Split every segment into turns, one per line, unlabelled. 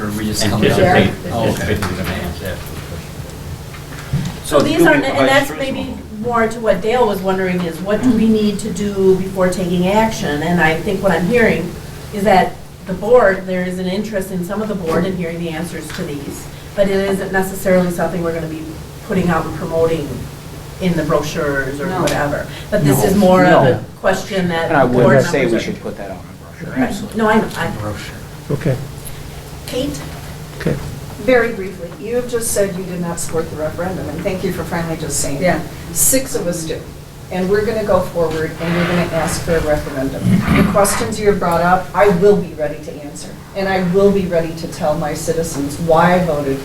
Or we just come down?
Anticipate,
Oh, okay.
anticipate the demands, yeah.
So these
do we
are, and
provide
that's
tourism?
maybe more to what Dale was wondering is what do we need to do before taking action? And I think what I'm hearing is that the board, there is an interest in some of the board in hearing the answers to these. But it isn't necessarily something we're gonna be putting out and promoting in the brochures or
No.
whatever. But this is
No,
more of
no.
a question that
And I
board
would say
members
we
are-
should put that on the brochure,
Right.
absolutely.
No, I, know. I,
Okay,
Kate?
okay.
Very briefly, you have just said you did not support the referendum, and thank you for finally just saying that. Six of us do, and we're going to go forward, and we're going to ask for a referendum. The questions you have brought up, I will be ready to answer, and I will be ready to tell my citizens why I voted,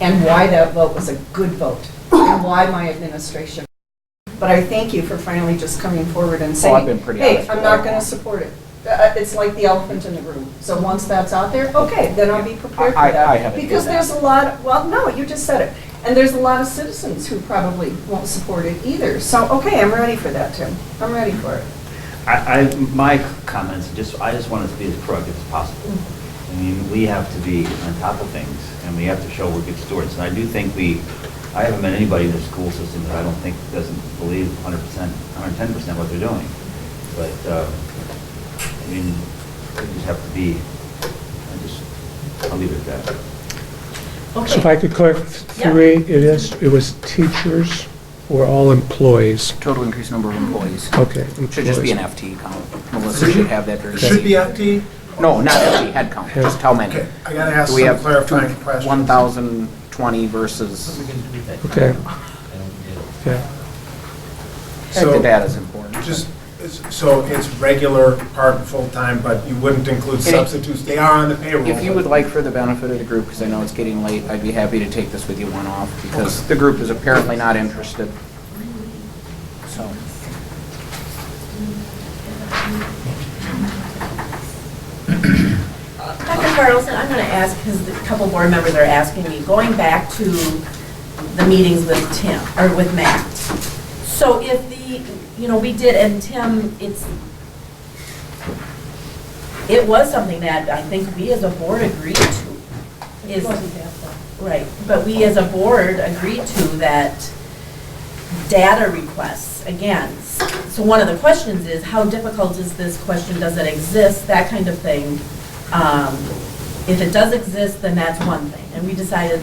and why that vote was a good vote, and why my administration. But I thank you for finally just coming forward and
Well,
saying.
Oh, I've been pretty honest
Hey, I'm
with
not
that.
going to support it. Uh, It's like the elephant in the room. So once that's out there, okay, then I'll be prepared for
I- I-
that.
I haven't done
Because
that.
there's a lot, well, no, you just said it. And there's a lot of citizens who probably won't support it either. So, okay, I'm ready for that, Tim. I'm ready for it.
I, I, my comments, just, I just want us to be as proactive as possible. I mean, we have to be on top of things, and we have to show we're good stewards. And I do think we, I haven't met anybody in the school system that I don't think doesn't believe 100%, 110% what they're doing. But, uh, I mean, we just have to be, I just, I'll leave it at that.
So if I
Okay.
could clarify, three, it is, it was teachers or all employees?
Total increase number of employees.
Okay.
Should just be an
employees.
FTE count. Melissa should have that very.
It Should be
easy.
FD?
No, not FTE, head count, just how many.
Okay, I gotta ask
Do we
some
have
clarifying questions.
1,020 versus,
Okay,
I don't get it.
yeah.
the
So,
data's important.
just, it's- so it's regular part and full-time, but you wouldn't include
It-
substitutes, they are on the payroll.
If you
but-
would like for the benefit of the group, because I know it's getting late, I'd be happy to take this with you one-off, because the group is apparently not interested. So,
Dr. Carlson, I'm going to ask, because a couple board members are asking me, going back to the meetings with Tim, or with Matt. So if the, you know, we did, and Tim, it's, it was something that I think we as a board agreed to. It wasn't that Right, but we as a board agreed to that data requests, again. So one of the questions is, how difficult is this question, does it exist, that kind of thing. Um, If it does exist, then that's one thing, and we decided,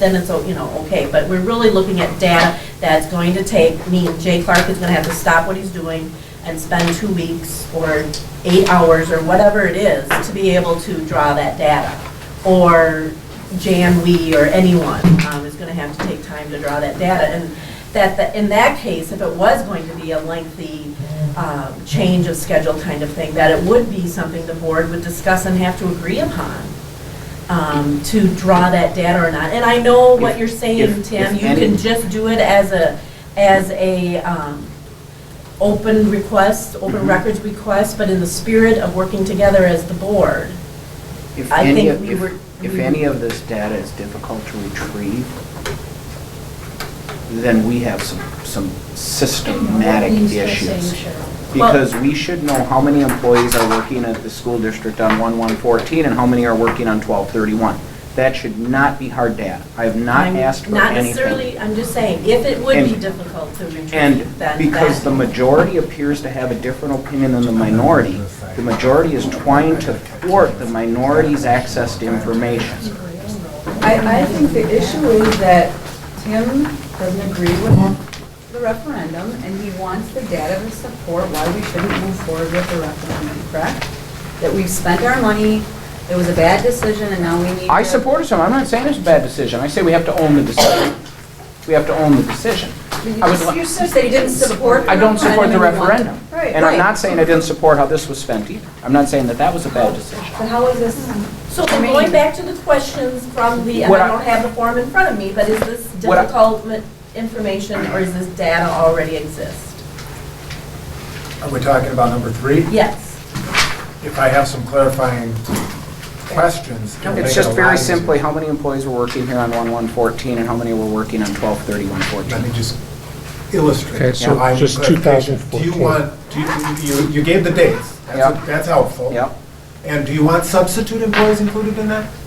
then it's, o- you know, okay, but we're really looking at data that's going to take, me, Jay Clark is gonna have to stop what he's doing and spend two weeks or eight hours or whatever it is to be able to draw that data. Or Jan Wee or anyone um, is gonna have to take time to draw that data. And that, that- in that case, if it was going to be a lengthy um, change of schedule kind of thing, that it would be something the board would discuss and have to agree upon um, to draw that data or not. And I know what you're saying,
If-
Tim,
if
you can
any-
just do it as a, as a um, open request,
Mm-hmm.
open records request, but in the spirit of working together as the board.
if
I
any
think
of,
we
if-
were-
if
we-
any of this data is difficult to retrieve, then we have some, some systematic issues. Because we should know how many employees are working at the school district on 1114 and how many are working on 1231. That should not be hard data. I have not
I'm
asked for
Not
anything.
necessarily, I'm just saying, if it would be
And-
difficult to retrieve, then
And
that.
because the majority appears to have a different opinion than the minority, the majority is trying to thwart the minority's access to information.
I, I think the issue is that Tim doesn't agree with the referendum, and he wants the data to support why we shouldn't move forward with the referendum, correct? That we've spent our money, it was a bad decision, and now we need
I
to-
support some, I'm not saying it's a bad decision, I say we have to own the decision. We have to own the decision. I would li-
You said you didn't support the
I don't support the
and you want-
referendum.
Right.
And I'm
Right.
not saying I didn't support how this was spent either. I'm not saying that that was a bad decision.
But how is this?
So then going back to the questions from the, and
What
I
I-
don't have the form in front of me, but is this
What I-
difficult ma- information or is this data already exist?
Are we talking about number three?
Yes.
If I have some clarifying questions. it'll make
It's
it a
just
lot
very
easier.
simply, how many employees were working here on 1114 and how many were working on 123114?
Let me just illustrate.
Okay, so
why we
just
put-
2014.
Do you want, do you, you- you gave the dates, that's,
Yep.
that's helpful.
Yep.
And do you want substitute employees included in that?